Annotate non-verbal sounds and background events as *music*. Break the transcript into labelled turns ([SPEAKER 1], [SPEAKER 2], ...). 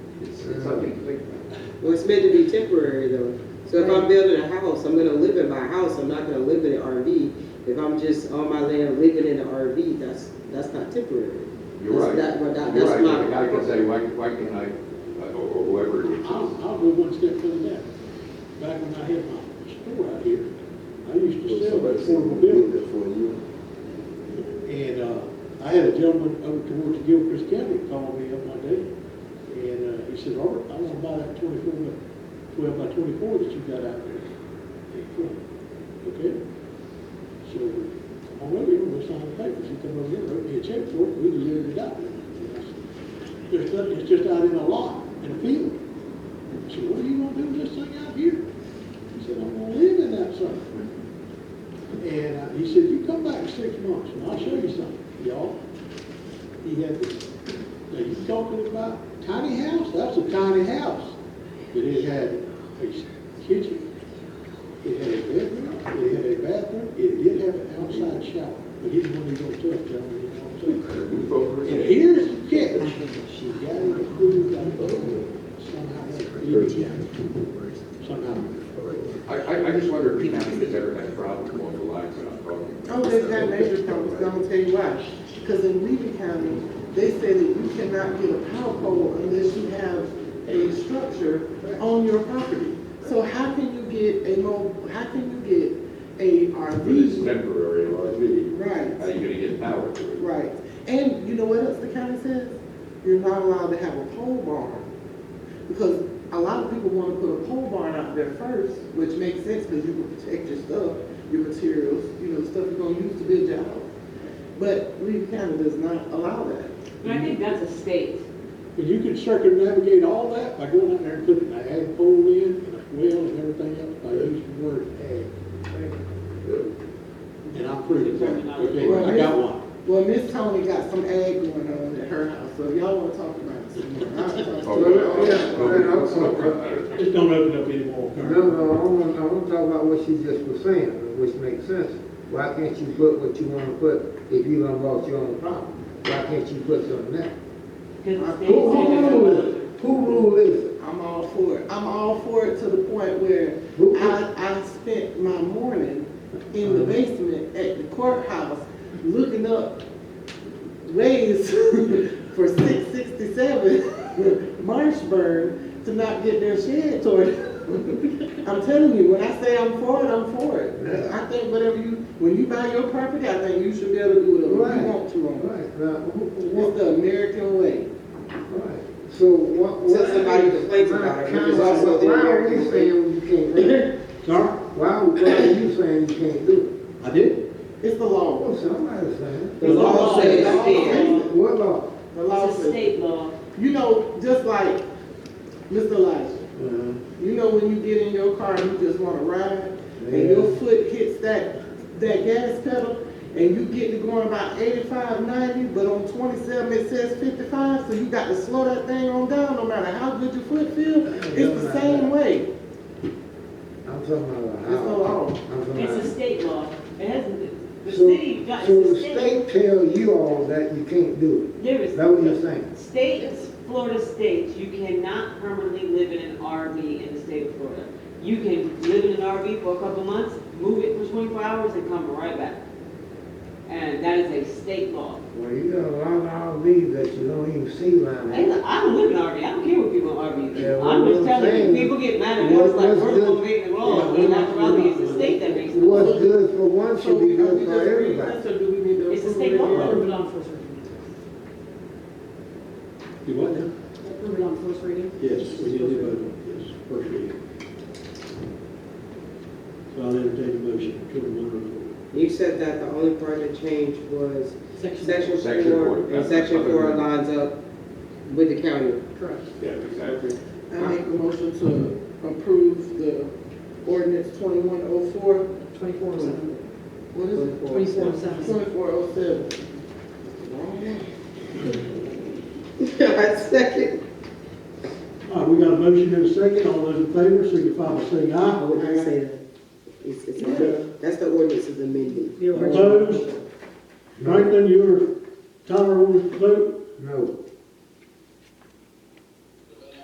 [SPEAKER 1] wait, wait, wait. Well, it's meant to be temporary though. So if I'm building a house, I'm gonna live in my house, I'm not gonna live in an RV. If I'm just on my land living in an RV, that's, that's not temporary.
[SPEAKER 2] You're right.
[SPEAKER 1] That's not- that-
[SPEAKER 2] You're
[SPEAKER 1] that's
[SPEAKER 2] right,
[SPEAKER 1] not-
[SPEAKER 2] but I can say, why, why can't I, uh, or or whoever it
[SPEAKER 3] I'll,
[SPEAKER 2] is.
[SPEAKER 3] I'll go one step further than that. Back when I had my store out here, I used to sell affordable buildings. And, uh, I had a gentleman over towards Gilchrist County call me up one day, and, uh, he said, Art, I wanna buy that twenty-four by, twelve by twenty-four that you got out there. Hey, cool. Okay? So, I went over and signed the papers, he come over here, wrote me a check for it, we delivered it out there. And I said, There's nothing, it's just out in a lot, in a field. I said, what are you gonna do with this thing out here? He said, I'm gonna live in that sucker. And uh, he said, you come back in six months and I'll show you something, y'all. He had this, now you talking about tiny house, that's a tiny house. But it had a kitchen, it had a bedroom, it had a bathroom, it did have an outside shower. But he's one of those tough gentlemen, you know what I'm saying? And here's the catch, she got it approved by the board, somehow, somehow.
[SPEAKER 2] I, I, I just wonder if county has ever had a problem along the lines that I'm talking
[SPEAKER 4] Oh,
[SPEAKER 2] about.
[SPEAKER 4] they've had major problems, and I'm gonna tell you why. Because in Levy County, they say that you cannot get a power pole unless you have a structure on your property. So how can you get a mo, how can you get a
[SPEAKER 2] But it's
[SPEAKER 4] RV?
[SPEAKER 2] temporary RV. How
[SPEAKER 4] Right,
[SPEAKER 2] you gonna get power to it?
[SPEAKER 4] right. And you know what else the county says? You're not allowed to have a pole barn. Because a lot of people wanna put a pole barn out there first, which makes sense, because you can protect your stuff, your materials, you know, the stuff you're gonna use to build your house. But Lee County does not allow that.
[SPEAKER 5] But I think that's a state.
[SPEAKER 3] But you can circumnavigate all that by going out there and putting an ag pole in, and a well and everything else, by using the word ag. And I'm pretty good, okay, I got one.
[SPEAKER 4] Well, Miss Tony got some ag going on at her house, so if y'all wanna talk about it some more. I'll talk
[SPEAKER 2] Oh,
[SPEAKER 4] to
[SPEAKER 2] no,
[SPEAKER 4] her.
[SPEAKER 2] no, no, no.
[SPEAKER 3] Just don't open up anymore.
[SPEAKER 6] No, no, I want, I want to talk about what she just was saying, which makes sense. Why can't you put what you want to put if you done bought your own property? Why can't you put something there?
[SPEAKER 5] Because the state
[SPEAKER 6] Uh, Who, who
[SPEAKER 5] said
[SPEAKER 6] rule
[SPEAKER 5] it's-
[SPEAKER 6] is, who rule is it?
[SPEAKER 4] I'm all for it. I'm all for it to the point where
[SPEAKER 6] Who- who-
[SPEAKER 4] I, I spent my morning in the basement at the courthouse looking up ways *laughs* for six sixty-seven *laughs* Marshburn to not get their shed toward. *laughs* I'm telling you, when I say I'm for it, I'm for it. I think whatever you, when you buy your property, I think you should be able to do whatever you
[SPEAKER 6] Right.
[SPEAKER 4] want to on it.
[SPEAKER 6] Right, now, who,
[SPEAKER 4] It's
[SPEAKER 6] what,
[SPEAKER 4] the American way.
[SPEAKER 6] right, so what?
[SPEAKER 1] So
[SPEAKER 6] what-
[SPEAKER 1] somebody complains about it, which is also the
[SPEAKER 6] Why are
[SPEAKER 1] American
[SPEAKER 6] you
[SPEAKER 1] way.
[SPEAKER 6] saying you can't do *laughs* it?
[SPEAKER 3] Sorry,
[SPEAKER 6] Why, why are you saying you can't do it?
[SPEAKER 3] I did.
[SPEAKER 4] It's the law.
[SPEAKER 6] Oh, somebody's saying.
[SPEAKER 1] The law says
[SPEAKER 4] it's-
[SPEAKER 1] it's
[SPEAKER 6] What law?
[SPEAKER 4] The law
[SPEAKER 5] It's a
[SPEAKER 4] says.
[SPEAKER 5] state law.
[SPEAKER 4] You know, just like Mr. Elijah, you know when you get in your car and you just wanna ride, and
[SPEAKER 6] Yeah.
[SPEAKER 4] your foot hits that, that gas pedal, and you get to going about 85, 90, but on twenty-seven it says fifty-five, so you got to slow that thing on down, no matter how good your foot feel, it's the same way.
[SPEAKER 6] I'm talking about.
[SPEAKER 4] It's the law.
[SPEAKER 6] I'm talking about-
[SPEAKER 5] It's a state law. It hasn't, the
[SPEAKER 6] So-
[SPEAKER 5] city, got-
[SPEAKER 6] So
[SPEAKER 5] it's
[SPEAKER 6] the
[SPEAKER 5] a state.
[SPEAKER 6] state tell you all that you can't do
[SPEAKER 5] There
[SPEAKER 6] it,
[SPEAKER 5] is.
[SPEAKER 6] that what you're saying?
[SPEAKER 5] States, Florida states, you cannot permanently live in an RV in the state of Florida. You can live in an RV for a couple months, move it for twenty-four hours and come right back. And that is a state law.
[SPEAKER 6] Well, you got a lot of RVs that you don't even see around
[SPEAKER 5] Hey,
[SPEAKER 6] here.
[SPEAKER 5] look, I don't live in an RV. I don't care what people in RVs
[SPEAKER 6] Yeah,
[SPEAKER 5] do.
[SPEAKER 6] well,
[SPEAKER 5] I'm just
[SPEAKER 6] what I'm
[SPEAKER 5] telling
[SPEAKER 6] saying
[SPEAKER 5] you, people get mad at
[SPEAKER 6] what-
[SPEAKER 5] us like
[SPEAKER 6] what's
[SPEAKER 5] we're the
[SPEAKER 6] good-
[SPEAKER 5] one making the law.
[SPEAKER 6] yeah,
[SPEAKER 5] We're
[SPEAKER 6] what-
[SPEAKER 5] not around here. It's the state that makes the law.
[SPEAKER 6] What's good for one
[SPEAKER 4] So
[SPEAKER 6] should be
[SPEAKER 4] are we
[SPEAKER 6] good
[SPEAKER 4] just
[SPEAKER 6] for
[SPEAKER 4] reading
[SPEAKER 6] everybody.
[SPEAKER 4] this, or do we need to
[SPEAKER 5] It's a
[SPEAKER 4] approve
[SPEAKER 5] state
[SPEAKER 4] it?
[SPEAKER 5] law.
[SPEAKER 4] Or-
[SPEAKER 7] on first reading.
[SPEAKER 3] You what now?
[SPEAKER 7] Approve it on first reading?
[SPEAKER 3] Yes, we did do it, yes, first reading. So I'll entertain a motion, children
[SPEAKER 1] You said that the only part that changed was section
[SPEAKER 2] Section four.
[SPEAKER 1] four, and section four lines up with the county.
[SPEAKER 4] Correct.
[SPEAKER 2] Yeah, exactly.
[SPEAKER 4] I make a motion to approve the ordinance twenty-one oh four.
[SPEAKER 7] Twenty-four oh seven.
[SPEAKER 4] What is it?
[SPEAKER 7] Twenty-four oh seven.
[SPEAKER 4] Twenty-four oh seven. *laughs*
[SPEAKER 1] I second.
[SPEAKER 3] All right, we got a motion and a second, all those in favor, signify by saying aye.
[SPEAKER 1] Ordinance says, it's, it's, amended. that's the ordinance is amended.
[SPEAKER 7] Your worship.
[SPEAKER 3] Opposed? Franklin, your time vote,
[SPEAKER 6] No,